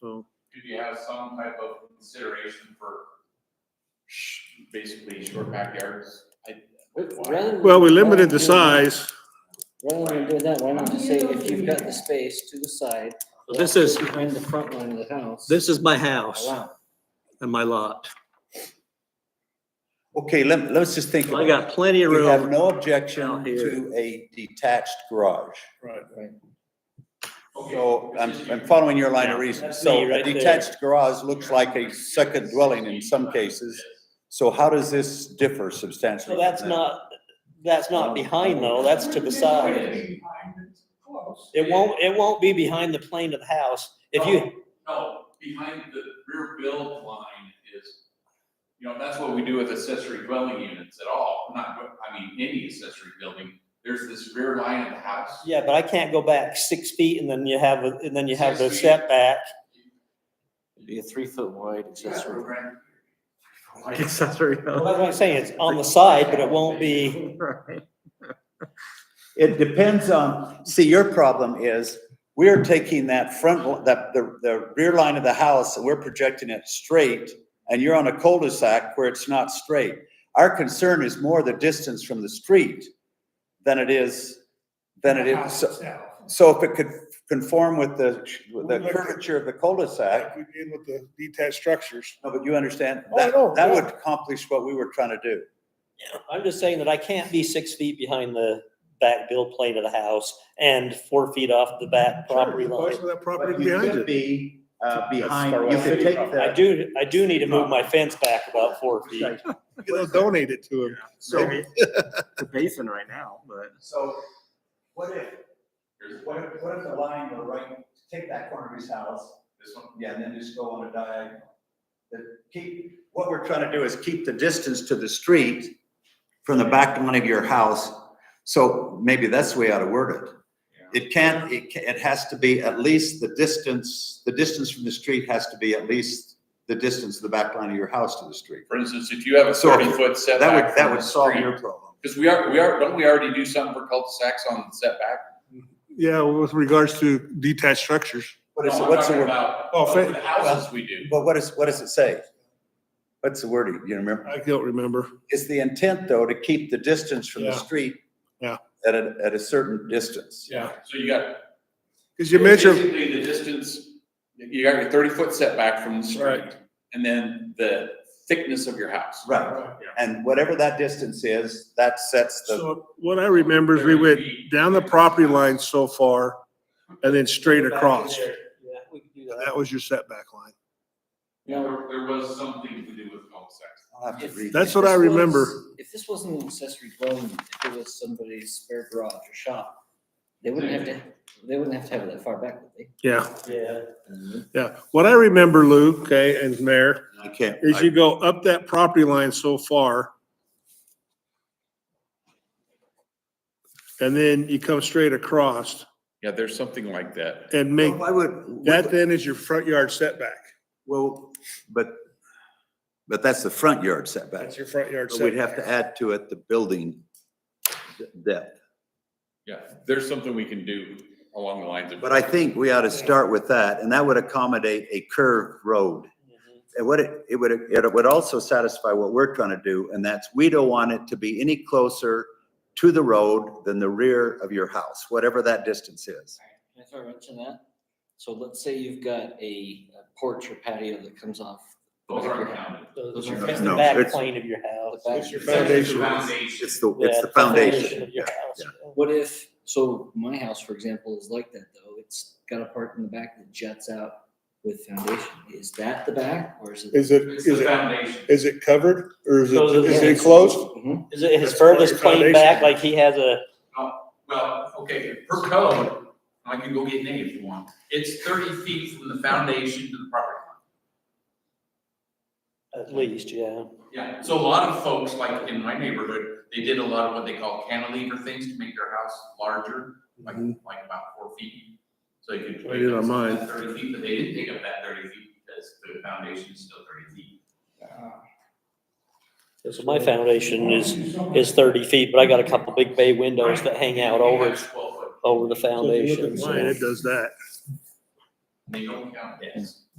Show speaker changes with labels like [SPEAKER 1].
[SPEAKER 1] So,
[SPEAKER 2] Could you have some type of consideration for sh- basically short backyards? I-
[SPEAKER 3] Rather than-
[SPEAKER 1] well, we limited
[SPEAKER 3] rather than
[SPEAKER 1] the
[SPEAKER 3] doing-
[SPEAKER 1] size.
[SPEAKER 3] Rather than doing that, why not just say if you've got the space to the side.
[SPEAKER 4] So this is-
[SPEAKER 3] Behind the front line of the house.
[SPEAKER 4] This is my house
[SPEAKER 3] Allow.
[SPEAKER 4] and my lot.
[SPEAKER 5] Okay, let, let's just think.
[SPEAKER 4] I
[SPEAKER 5] about
[SPEAKER 4] got plenty
[SPEAKER 5] it.
[SPEAKER 4] of
[SPEAKER 5] We have
[SPEAKER 4] room.
[SPEAKER 5] no objection
[SPEAKER 4] Out here.
[SPEAKER 5] to a detached garage.
[SPEAKER 1] Right.
[SPEAKER 2] Okay,
[SPEAKER 5] So I'm,
[SPEAKER 2] this is-
[SPEAKER 5] I'm following your line of reasoning.
[SPEAKER 4] That's
[SPEAKER 5] So
[SPEAKER 4] me
[SPEAKER 5] a
[SPEAKER 4] right there.
[SPEAKER 5] detached garage looks like a second dwelling in some cases. So how does this differ substantially?
[SPEAKER 6] So that's
[SPEAKER 5] from that?
[SPEAKER 6] not, that's not behind though, that's to the side. It won't, it won't be behind the plane of the house. If you,
[SPEAKER 2] No, behind the rear build line is, you know, that's what we do with accessory dwelling units at all, not, I mean, any accessory building. There's this rear line of the house.
[SPEAKER 6] yeah, but I can't go back six feet and then you have, a- and then you have the
[SPEAKER 2] Six feet.
[SPEAKER 6] setback.
[SPEAKER 3] Be a three foot wide
[SPEAKER 1] Accessory.
[SPEAKER 6] Well, that's what I'm saying, it's on the side, but it won't be,
[SPEAKER 5] It depends on, see, your problem is, we're taking that front, that, the, the rear line of the house, and we're projecting it straight, and you're on a cul-de-sac where it's not straight. Our concern is more the distance from the street than it is, than it is. so- So if it could conform with the, with the curvature of the cul-de-sac,
[SPEAKER 1] We did with the detached structures.
[SPEAKER 5] no, but you understand,
[SPEAKER 1] Oh, I
[SPEAKER 5] that,
[SPEAKER 1] know,
[SPEAKER 5] that
[SPEAKER 1] yeah.
[SPEAKER 5] would accomplish what we were trying to do.
[SPEAKER 6] I'm just saying that I can't be six feet behind the back build plane of the house and four feet off the back property line.
[SPEAKER 1] That property behind it.
[SPEAKER 5] be, uh,
[SPEAKER 1] behind- far
[SPEAKER 5] you
[SPEAKER 1] away.
[SPEAKER 5] could take the.
[SPEAKER 6] I do, I do need to move my fence back about four feet.
[SPEAKER 1] You know, Donate it to him.
[SPEAKER 7] So the basin right now, but
[SPEAKER 5] So what if,
[SPEAKER 2] Here's
[SPEAKER 5] what if, what if the line were right, take that corner of his house,
[SPEAKER 2] this one.
[SPEAKER 5] yeah, and then just go on a diagonal? That keep, what we're trying to do is keep the distance to the street from the back line of your house. So maybe that's the way I ought to word it. It can't, it, ca- it has to be at least the distance, the distance from the street has to be at least the distance of the back line of your house to the street.
[SPEAKER 2] For instance, if you have a
[SPEAKER 5] So,
[SPEAKER 2] thirty foot
[SPEAKER 5] That
[SPEAKER 2] setback.
[SPEAKER 5] would, that
[SPEAKER 2] from
[SPEAKER 5] would
[SPEAKER 2] the
[SPEAKER 5] solve
[SPEAKER 2] street-
[SPEAKER 5] your problem.
[SPEAKER 2] Cause we are, we are, don't we already do something for cul-de-sacs on setback?
[SPEAKER 1] Yeah, with regards to detached structures.
[SPEAKER 5] What is,
[SPEAKER 2] No,
[SPEAKER 5] it-
[SPEAKER 2] I'm
[SPEAKER 5] what's the
[SPEAKER 2] talking
[SPEAKER 5] word?
[SPEAKER 2] about
[SPEAKER 1] Oh,
[SPEAKER 2] for
[SPEAKER 1] fa-
[SPEAKER 2] the houses we do.
[SPEAKER 5] But what is, what does it say? What's the wording? You remember?
[SPEAKER 1] I don't remember.
[SPEAKER 5] Is the intent though to keep the distance from the
[SPEAKER 1] Yeah.
[SPEAKER 5] street?
[SPEAKER 1] Yeah.
[SPEAKER 5] At a, at a certain distance.
[SPEAKER 1] Yeah.
[SPEAKER 2] So you got.
[SPEAKER 1] Because you mentioned,
[SPEAKER 2] Basically, the distance, you got your thirty foot setback from the street,
[SPEAKER 1] Right.
[SPEAKER 2] and then the thickness of your house.
[SPEAKER 5] Right. And whatever that distance is, that sets the,
[SPEAKER 1] so what I remember is we went down the property line so far and then straight across.
[SPEAKER 6] Yeah, we could do that.
[SPEAKER 1] That was your setback line.
[SPEAKER 2] There, there was something to do with cul-de-sacs.
[SPEAKER 5] I'll have to read.
[SPEAKER 1] That's
[SPEAKER 5] that.
[SPEAKER 1] what I
[SPEAKER 3] If this was-
[SPEAKER 1] remember.
[SPEAKER 3] If this wasn't an accessory dwelling, if it was somebody's spare garage or shop, they wouldn't have to, they wouldn't have to have it that far back, would they?
[SPEAKER 1] Yeah,
[SPEAKER 6] Yeah.
[SPEAKER 1] yeah. What I remember, Lou, okay, and Mayor,
[SPEAKER 5] I can't,
[SPEAKER 1] is
[SPEAKER 5] I-
[SPEAKER 1] you go up that property line so far. And then you come straight across
[SPEAKER 2] Yeah, there's something like that.
[SPEAKER 1] and make,
[SPEAKER 5] why would?
[SPEAKER 1] that then is your front yard setback.
[SPEAKER 5] Well, but, but that's the front yard setback.
[SPEAKER 1] That's your front yard
[SPEAKER 5] But we'd have
[SPEAKER 1] setback.
[SPEAKER 5] to add to it the building de- depth.
[SPEAKER 2] Yeah, there's something we can do along the lines of.
[SPEAKER 5] But I think we ought to start with that and that would accommodate a curved road. And what it, it would, it would also satisfy what we're trying to do, and that's, we don't want it to be any closer to the road than the rear of your house, whatever that distance is.
[SPEAKER 3] Can I throw a wrench in that? So let's say you've got a porch or patio that comes off. the
[SPEAKER 2] Those
[SPEAKER 3] back of
[SPEAKER 2] aren't
[SPEAKER 3] your house.
[SPEAKER 2] counted.
[SPEAKER 3] Those
[SPEAKER 6] It's
[SPEAKER 3] are-
[SPEAKER 6] the
[SPEAKER 5] No,
[SPEAKER 6] back
[SPEAKER 5] it's-
[SPEAKER 6] plane Mm-hmm. of your house.
[SPEAKER 3] The back- It's your
[SPEAKER 1] foundation.
[SPEAKER 2] Foundation.
[SPEAKER 5] It's the, it's
[SPEAKER 6] Yeah,
[SPEAKER 5] the foundation.
[SPEAKER 6] of your house.
[SPEAKER 3] What if, so my house, for example, is like that though. It's got a part in the back that juts out with foundation. Is that the back or is it?
[SPEAKER 1] Is it,
[SPEAKER 2] It's
[SPEAKER 1] is
[SPEAKER 2] the
[SPEAKER 1] it,
[SPEAKER 2] foundation.
[SPEAKER 1] is it covered or is it,
[SPEAKER 6] So the-
[SPEAKER 1] is it enclosed?
[SPEAKER 3] Mhm.
[SPEAKER 6] Is it his
[SPEAKER 1] That's part of
[SPEAKER 6] furthest
[SPEAKER 1] your
[SPEAKER 6] plane
[SPEAKER 1] foundation.
[SPEAKER 6] back, like he has a,
[SPEAKER 2] Well, okay, per code, I can go get Nate if you want. It's thirty feet from the foundation to the property line.
[SPEAKER 6] at least, yeah.
[SPEAKER 2] Yeah, so a lot of folks, like in my neighborhood, they did a lot of what they call cantilever things to make their house larger, like, like about four feet. So you could.
[SPEAKER 1] Mm-hmm. I did on mine.
[SPEAKER 2] Thirty feet, but they didn't take up that thirty feet because the foundation is still thirty feet.
[SPEAKER 6] So my foundation is, is thirty feet, but I got a couple big bay windows that hang out over,
[SPEAKER 2] That's Twelve foot,
[SPEAKER 6] over the
[SPEAKER 1] So if you look
[SPEAKER 6] foundation.
[SPEAKER 1] at
[SPEAKER 6] so-
[SPEAKER 1] mine, It does that.
[SPEAKER 2] they don't count this.